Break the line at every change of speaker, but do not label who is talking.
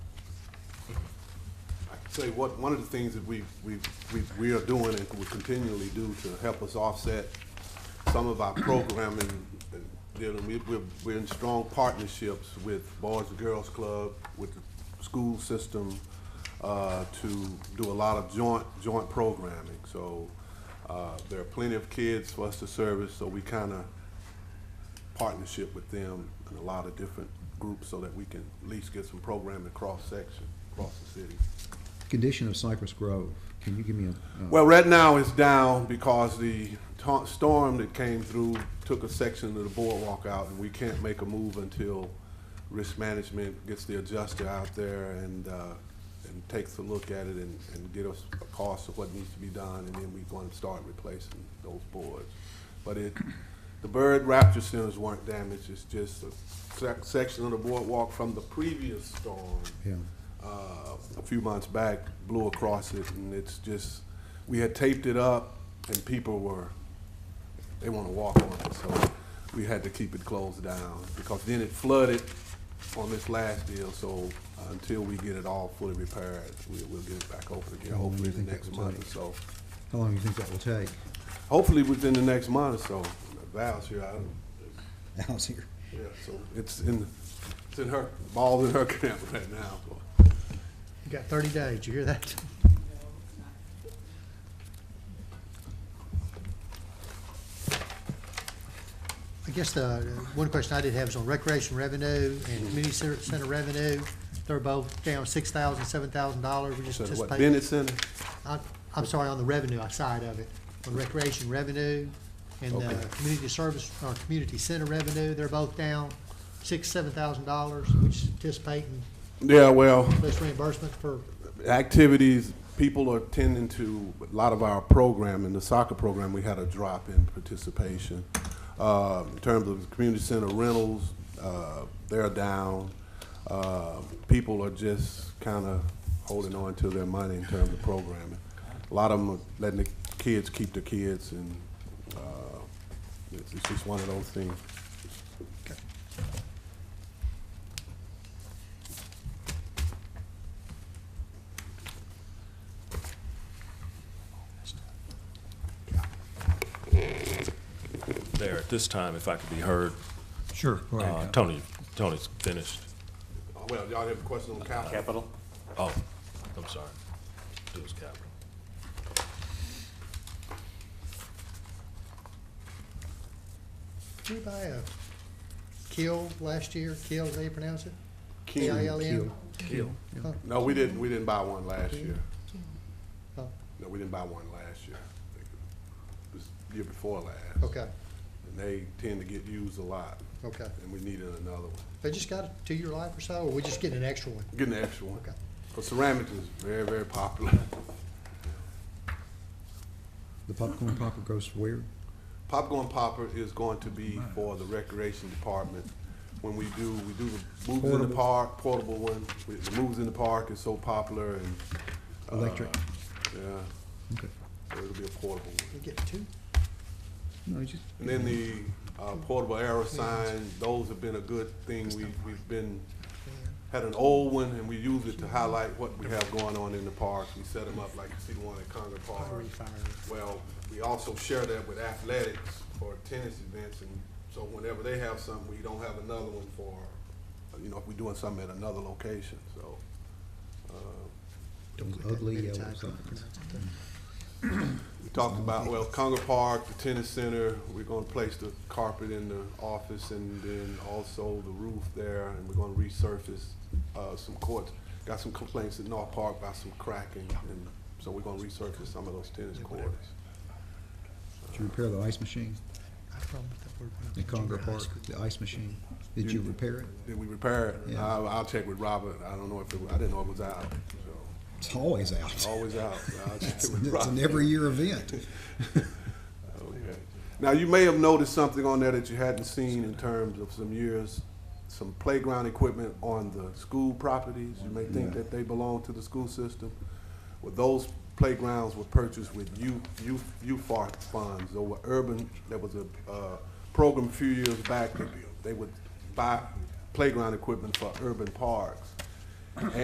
say what, one of the things that we, we, we, we are doing and will continually do to help us offset some of our programming, and dealing, we, we're, we're in strong partnerships with Boys and Girls Club, with the school system, uh, to do a lot of joint, joint programming. So, uh, there are plenty of kids for us to service, so we kinda partnership with them and a lot of different groups so that we can at least get some programming cross-section, across the city.
Condition of Cypress Grove, can you give me a? uh,
Well, right now it's down because the ta- storm that came through took a section of the boardwalk out and we can't make a move until risk management gets the adjuster out there and, uh, and takes a look at it and, and get us a cost of what needs to be done and then we're gonna start replacing those boards. But it, the Bird Raptor Centers weren't damaged, it's just a sec- section of the boardwalk from the previous storm
Yeah,
uh, a few months back, blew across it, and it's just, we had taped it up, and people were, they want to walk on it, so we had to keep it closed down, because then it flooded on this last deal, so until we get it all fully repaired, we, we'll get it back open again,
How long do
hopefully
you
the
think that
next
will
month
take?
or so.
how long do you think that will take?
Hopefully within the next month or so, Val's here, I don't,
Al's here.
yeah, so it's in, it's in her, ball's in her camp right now, so.
You got thirty days, you hear that? I guess the, uh, one question I did have is on recreation revenue and community center center revenue. They're both down six thousand, seven thousand dollars, we just
So what,
anticipate.
Bennett Center?
I- I'm sorry, on the revenue side of it, on recreation revenue and
Okay.
the community service, or community center revenue, they're both down six, seven thousand dollars, which anticipating
Yeah, well,
less reimbursement for
activities, people are tending to, a lot of our program, in the soccer program, we had a drop in participation. Uh, In terms of community center rentals, uh, they're down. Uh, People are just kind of holding on to their money in terms of programming. A lot of them are letting the kids keep the kids, and uh, it's it's just one of those things.
There, at this time, if I could be heard,
Sure.
uh, Tony, Tony's finished.
Well, y'all have a question on capital?
Capital?
Oh, I'm sorry. Dues capital.
Did we buy a kill last year? Kill, is that how you pronounce it?
Keen.
K-I-L-N?
No, we didn't, we didn't buy one last year.
Oh,
No, we didn't buy one last year. I think It was the year before last.
okay,
And they tend to get used a lot,
okay.
and we needed another one.
They just got a two-year life or so, or we just getting an extra one?
Getting an extra one.
Okay.
But ceramic is very, very popular.
The popcorn popper goes where?
Popcorn popper is going to be for the recreation department. When we do, we do the moves in the
Portable.
park, portable one. We- The moves in the park is so popular and. uh,
Electric.
Yeah,
Okay.
so it'll be a portable one.
We get two?
No, you just.
And then the uh, portable arrow sign, those have been a good thing. We, we've been, had an old one and we use it to highlight what we have going on in the park. We set them up like you see the one at Conger Park. Well, we also share that with athletics for tennis events and so whenever they have something, we don't have another one for, you know, if we're doing something at another location, so.
Don't put that
Ugly
many
yellow
times.
signs.
We talked about, well, Conger Park, the tennis center, we're gonna place the carpet in the office and then also the roof there, and we're gonna resurface, uh, some courts. Got some complaints at North Park about some cracking, and so we're gonna resurface some of those tennis courts.
Did you repair the ice machine
I have a problem with that word when I'm
in
in junior
Conger
high
Park?
school.
The ice machine? Did you repair it?
Did we repair it?
Yeah.
I'll, I'll check with Robert, I don't know if it, I didn't know it was out, so,
It's always out.
always out. I'll check
It's
with
it's an
Robert.
every year event.
Okay. Now, you may have noticed something on there that you hadn't seen in terms of some years, some playground equipment on the school properties. You may think that they belong to the school system. Well, those playgrounds were purchased with U, U, UFAR funds. There were urban, there was a, uh, program a few years back, that they would buy playground equipment for urban parks.